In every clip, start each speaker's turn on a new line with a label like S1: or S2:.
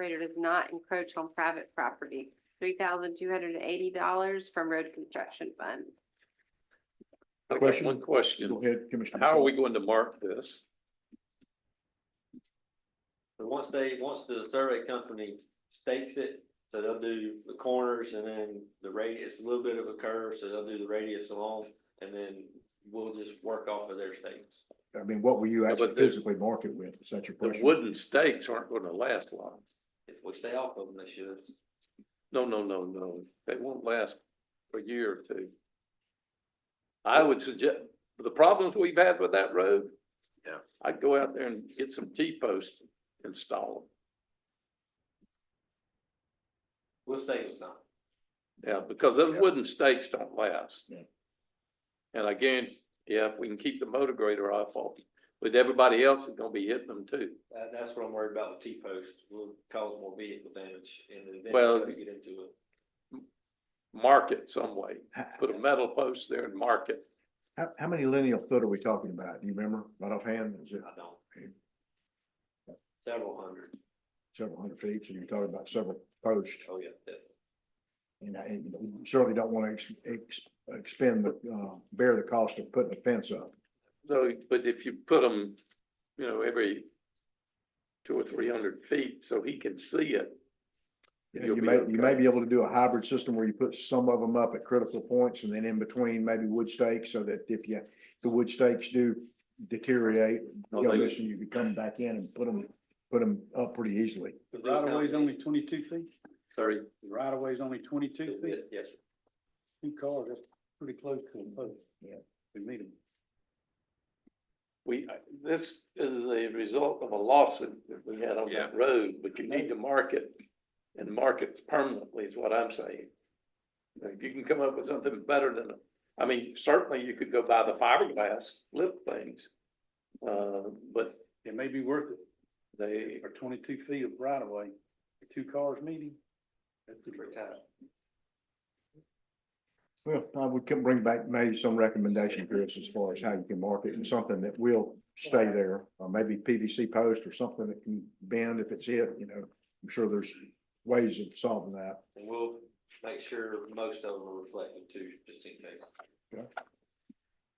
S1: operator does not encroach on private property. Three thousand two hundred and eighty dollars from road construction fund.
S2: I got
S3: Question?
S2: One
S3: Go
S2: question,
S3: ahead, Commissioner.
S2: how are we going to mark this?
S4: But once they, once the survey company stakes it, so they'll do the corners and then the radius, a little bit of a curve, so they'll do the radius along. And then we'll just work off of their stakes.
S3: I mean, what will you
S2: No, but
S3: actually
S2: the-
S3: physically mark it with? Is that your
S2: The
S3: question?
S2: wooden stakes aren't gonna last long.
S4: If we stay off of them, they should.
S2: No, no, no, no, they won't last a year or two. I would suggest, the problems we've had with that road.
S4: Yeah.
S2: I'd go out there and get some T-posts installed,
S4: We'll stay with some.
S2: yeah, because those
S3: Yeah.
S2: wooden stakes don't last.
S3: Yeah.
S2: And again, yeah, if we can keep the motor grader off of it, but everybody else is gonna be hitting them too.
S4: That, that's what I'm worried about with T-posts. Will cause more vehicle damage in the event.
S2: Well-
S4: we Get into it.
S2: Mark it some way,
S3: How-
S2: put a metal post there and mark it.
S3: How, how many lineal foot are we talking about? Do you remember right offhand? Is it
S4: I don't. Several hundred.
S3: several hundred feet? So you're talking about several posts.
S4: Oh, yeah. definitely.
S3: And I and you certainly don't want to ex, expend, the, uh, bear the cost of putting a fence up.
S2: So, but if you put them, you know, every two or three hundred feet, so he can see it. You'll
S3: You
S2: be
S3: may, you may
S2: okay.
S3: be able to do a hybrid system where you put some of them up at critical points and then in between maybe wood stakes so that if you, the wood stakes do deteriorate,
S2: Oh,
S3: you know,
S2: they-
S3: listen, you could come back in and put them, put them up pretty easily.
S4: Could be
S5: Right of way's
S4: company.
S5: only twenty-two feet,
S2: Sorry,
S5: The right of way's only twenty-two
S4: Could be
S5: feet,
S4: it, Yes, sir.
S5: two cars, that's pretty close to a post.
S3: Yeah.
S5: We meet them.
S2: we, this is a result of a lawsuit that we had on that road, but you need to mark it. And mark it permanently is what I'm saying. If you can come up with something better than, I mean, certainly you could go buy the fiberglass lip things. Uh, but
S5: It may be worth it
S2: they,
S5: for twenty-two feet of right of way, two cars meeting. That's
S4: Pretty
S5: pretty tight.
S4: tight.
S3: Well, I would can bring back maybe some recommendation, Chris, as far as how you can market and something that will stay there, or maybe PVC post or something that can bend if it's it, you know. I'm sure there's ways of solving that.
S4: And we'll make sure most of them are reflected too, just in case.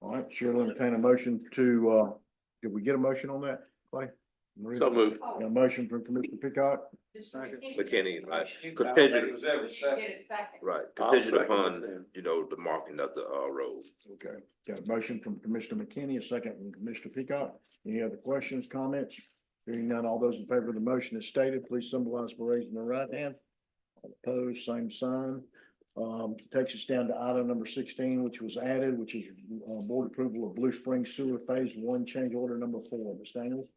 S3: All right, sure, I'll entertain a motion to, uh, did we get a motion on that, Clay? Maria?
S2: so move.
S3: Got A motion from Commissioner Peacock,
S6: McKinney, right, contingent, right,
S2: I'll
S6: contingent
S2: second
S6: upon,
S2: that.
S6: you know, the marking of the, uh, road.
S3: okay, got a motion from Commissioner McKinney, a second from Commissioner Peacock. Any other questions, comments? Hearing none, all those in favor of the motion as stated, please symbolize by raising the right hand. All Opposed, same sign. Um, takes us down to item number sixteen, which was added, which is, uh, board approval of Blue Spring Sewer Phase One Change Order Number Four. Ms. Daniels?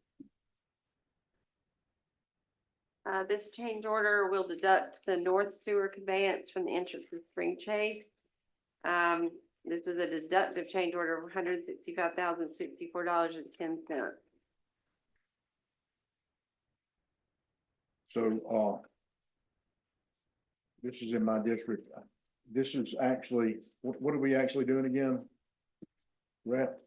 S1: Uh, this change order will deduct the north sewer conveyance from the interest of Spring Chase. Um, this is a deductive change order of one hundred sixty-five thousand sixty-four dollars and ten cents.
S3: So, uh, this is in my district. This is actually, what, what are we actually doing again? Rep,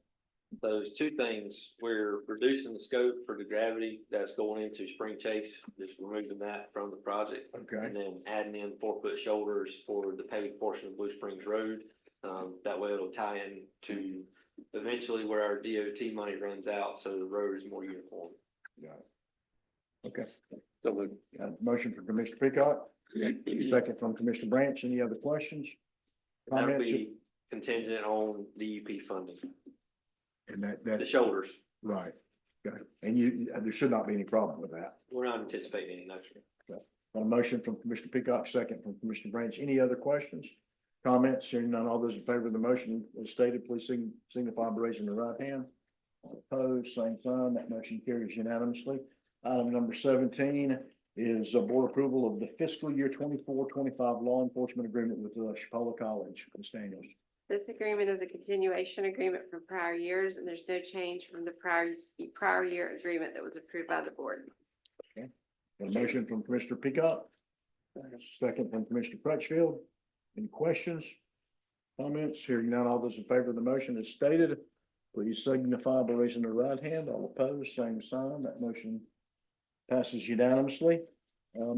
S4: Those two things, we're reducing the scope for the gravity that's going into Spring Chase, just removing that from the project.
S3: okay,
S4: And then adding in four foot shoulders for the paved portion of Blue Springs Road. Um, that way it'll tie in to eventually where our DOT money runs out, so the road is more uniform.
S3: okay.
S2: So move.
S3: Got a motion from Commissioner Peacock, second from Commissioner Branch. Any other questions?
S4: And That'll
S3: Comments?
S4: be contingent on DEP funding,
S3: And that,
S4: the
S3: that,
S4: shoulders.
S3: right. Got it. And you, there should not be any problem with that.
S4: We're not anticipating any, no, sir.
S3: Got a motion from Commissioner Peacock, second from Commissioner Branch. Any other questions? Comments? Hearing none, all those in favor of the motion as stated, please sign- signify by raising the right hand. All Opposed, same sign. That motion carries unanimously. Item number seventeen is a board approval of the fiscal year 24-25 law enforcement agreement with uh, Chipola College. Ms. Daniels.
S1: This agreement is a continuation agreement from prior years, and there's no change from the prior, the prior year agreement that was approved by the board.
S3: Got a motion from Commissioner Peacock. Second from Commissioner Crutchfield. Any questions? Comments? Hearing none, all those in favor of the motion as stated, please signify by raising the right hand. All opposed, same sign. That motion passes unanimously. Um,